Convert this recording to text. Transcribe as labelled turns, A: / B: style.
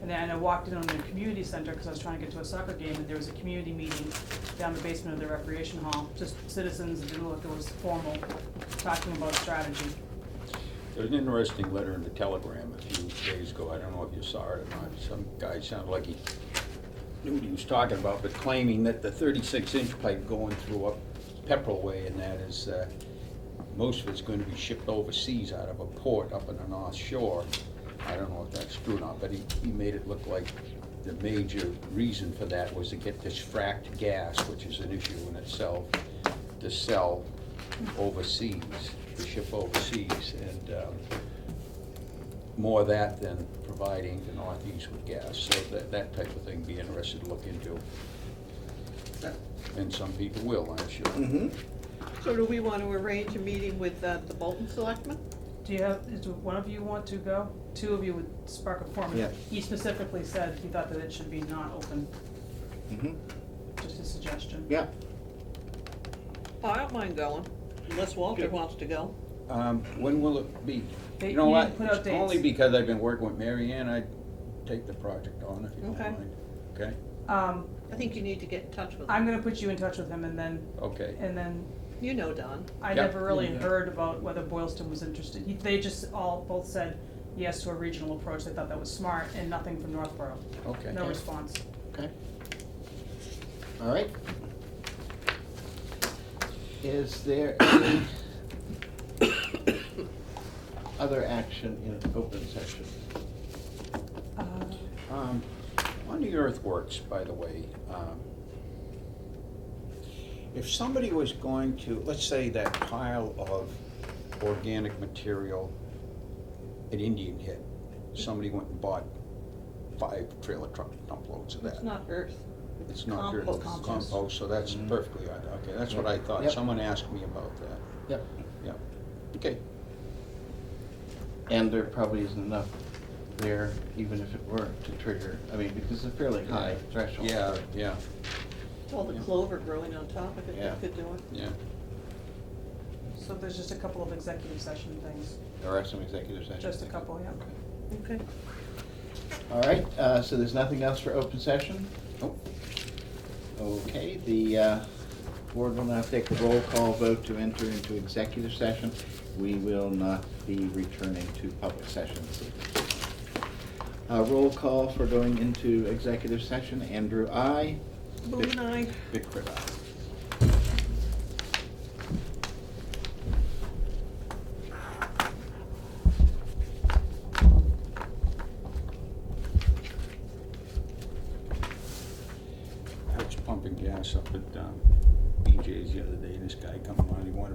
A: then I walked in on the community center, because I was trying to get to a soccer game, and there was a community meeting down the basement of the recreation hall, just citizens, it didn't look, it was formal, talking about strategy.
B: There's an interesting letter in the Telegram a few days ago, I don't know if you saw it or not. Some guy sounded like he knew what he was talking about, but claiming that the thirty-six inch pipe going through up Pepperell Way and that is, uh, most of it's gonna be shipped overseas out of a port up in the North Shore. I don't know if that's true or not, but he, he made it look like the major reason for that was to get this fracked gas, which is an issue in itself, to sell overseas, to ship overseas, and, um, more of that than providing the Northeast with gas. So that, that type of thing, be interested to look into. And some people will, I'm sure.
C: Mm-hmm.
D: So do we want to arrange a meeting with uh, the Bolton Selectmen?
A: Do you have, is one of you want to go? Two of you would spark a forum.
C: Yeah.
A: He specifically said he thought that it should be not open, just a suggestion.
C: mm-hmm, Yeah.
D: Oh, I don't mind going, unless Walter
C: Good.
D: wants to go.
B: Um, when will it be?
A: They-
B: You know
A: you
B: what?
A: didn't put out
B: It's Only
A: dates.
B: because I've been working with Mary Ann, I'd take the project on if you don't
D: Okay.
B: mind. Okay,
A: Um,
D: I think you need to get in touch with
A: I'm
D: him.
A: gonna put you in touch with him, and then,
B: okay.
A: and then
D: You know Don.
A: I
B: Yeah.
A: never really
B: Yeah.
A: heard about whether Boylston was interested. He- They just all both said yes to a regional approach. They thought that was smart, and nothing from Northborough.
B: Okay.
A: No response.
C: Okay. All right. Is there any other action in open session?
A: Uh,
B: Um, On the earthworks, by the way, um, if somebody was going to, let's say that pile of organic material at Indian Head, somebody went and bought five trailer truck dump loads of that.
D: It's not Earth.
B: It's not dirt, it's
D: compost.
B: compost, so that's
C: Mhm.
B: perfectly, okay, that's what I thought.
C: Mm-hmm. Yep.
B: Someone asked me about that,
C: Yep.
B: yeah. Okay,
C: And there probably isn't enough there, even if it were to trigger, I mean, because it's a fairly high threshold.
B: yeah, yeah,
D: All the clover growing on top of it,
C: Yeah.
D: that could do it.
B: yeah.
A: so there's just a couple of executive session things.
C: There are some executive sessions.
A: Just a couple, yeah.
D: Okay.
C: All right, uh, so there's nothing else for open session?
B: Nope.
C: Okay, the uh, board will now take a roll call vote to enter into executive session. We will not be returning to public session this evening. Uh, Roll call for going into executive session, Andrew, I.
D: Boone and I,
C: Big Crit, aye.
B: I was pumping gas up at um, BJ's the other day, and this guy come on, he wanted